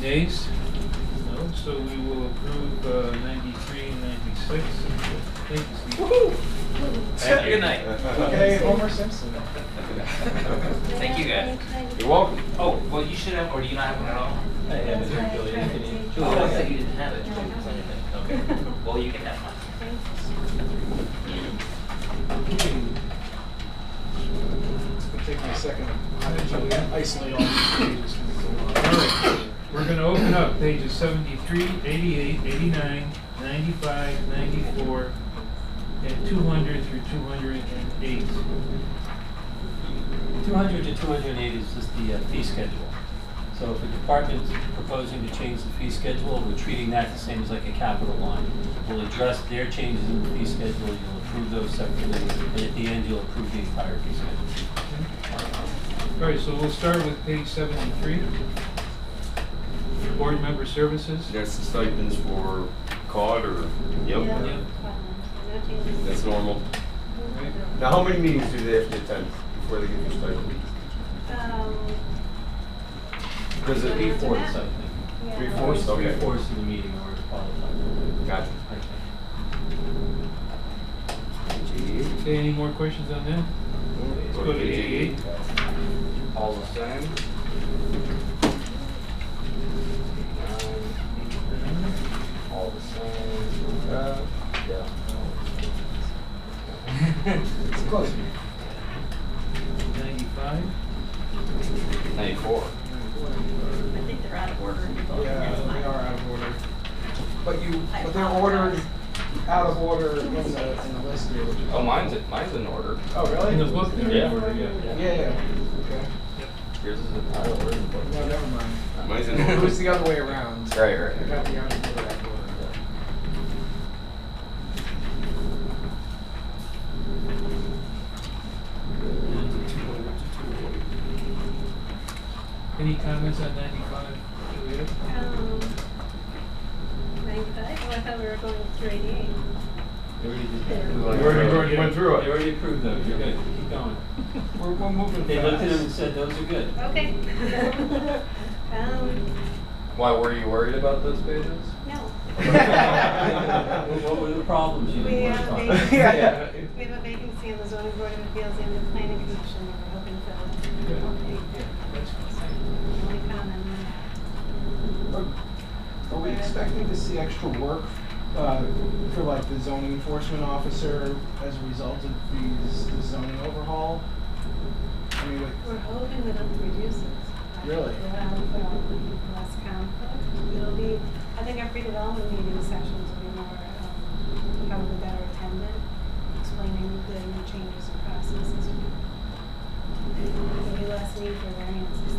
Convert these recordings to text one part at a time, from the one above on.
days? No, so we will approve uh, 93 and 96. Thank you, Steve. Thank you. Good night. Okay, Homer Simpson. Thank you, guys. You're welcome. Oh, well, you should have, or do you not have one at all? I have it there, Julie, if you need. Julie, I said you didn't have it. Julie, it's on your thing. Okay. Well, you can have mine. It'll take me a second. I'll actually isolate all these pages. All right, we're gonna open up pages 73, 88, 89, 95, 94, and 200 through 208. 200 to 280 is just the uh, fee schedule. So if a department's proposing to change the fee schedule, we're treating that the same as like a capital line. We'll address their changes in the fee schedule, you'll approve those separately, and at the end, you'll approve the entire fee schedule. All right, so we'll start with page 73. Board member services. That's the stipends for COD or? Yeah. That's normal. All right. Now, how many meetings do they have to attend before they get their stipend? Um, Does it, Three Fourth, fourths, I think. yeah. Three-fourths? Okay. Three-fourths of the meeting in order to qualify. gotcha. I think. E? Okay, any more questions on that? Let's go to 88. E. All the same? All the same. Uh, yeah. It's close. 95. Ninety-four. I think they're out of order. Yeah, they are out of order. But you, I But they're ordered, apologize. out of order in the, in the list here. which is- Oh, mine's, mine's in order. Oh, really? In the book? Yeah. Yeah, yeah, okay. Yours is in out of order. No, never mind. Mine's in It order. was the other way around. Right, I right. got the out of order, out of order. Any comments on 95? Juliet? Um, Ninety-five, oh, I thought we were going with three eighty-eight. They already did There. that. We already went through it. They already approved those, you're good, keep going. We're, we're moving They looked at them and fast. said, those are good. Okay. Um, Why, were you worried about those pages? no. What what were the problems you We didn't have want a to talk about? vacancy, Yeah. we have a vacancy on the zoning board of appeals and the planning commission, that we're hoping to fill. Okay. Only comment on that. Are are we expecting to see extra work, uh, for like the zoning enforcement officer as a result of these, the zoning overhaul? I mean, like, oh, We're hoping that it'll reduce it. Really? Well, well, less conflict. It'll be, I think our pre-development meeting sessions will be more, um, probably better attended, explaining the new changes and processes. There'll be less need for variances.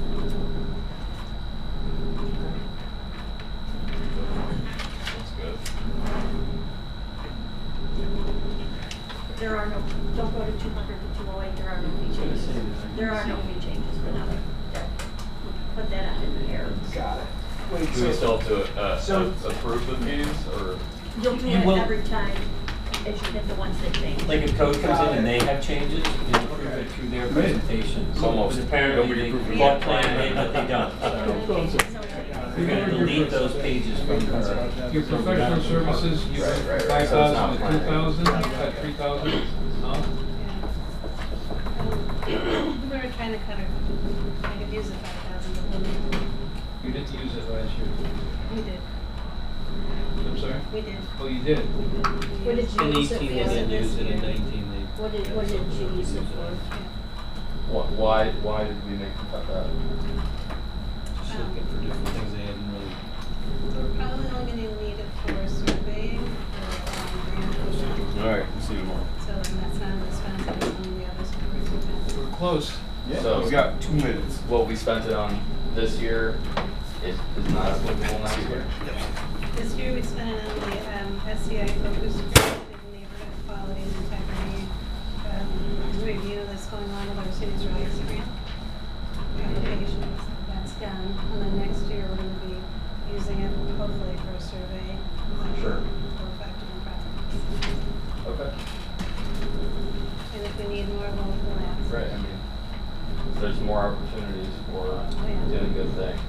That's good. There are no, don't go to two hundred to two oh eight, there are no fee was gonna changes. say that. There are no fee changes, but now, there, we put that out in the air. got it. Wait, Do we so, still have to, uh, So- a- approve the fees or? You'll do You it will- every time, as you get the ones that change. Like if code comes in and they have changes, you approve Okay. it through their presentation. It's almost- But apparently nobody they approved it. bought plan, they, but they don't, so. We're gonna delete those pages from her. Your professional services, you Right, got right, right. five So it's thousand, not planned. two thousand, you got three thousand. No? Um, We were trying to kind of, kind of use the five thousand, but we didn't. You didn't use it last year. we did, I'm sorry? we did. Oh, you did? What did you In use it eighteen, they for? didn't use it, in year. nineteen, they. What did, what did you use it for? Why- Why, why did we make the cut that? Just looking for different things they hadn't really. We're probably only gonna need it for surveying or um, grant pushing, All right, see you tomorrow. so and that's not as expensive as some of the others. You were close. So- Yeah, we got two minutes. What we spent it on this year is, is not applicable next year. This year we spent it on the um, SCI focus group and neighborhood quality and integrity um, review that's going on with our city's rights grant applications. That's done, and then next year we're gonna be using it hopefully for a survey. um, Sure. For effective projects. Okay. And if we need more, we'll we'll ask. Right, I mean, there's more opportunities for Oh, yeah. doing good things.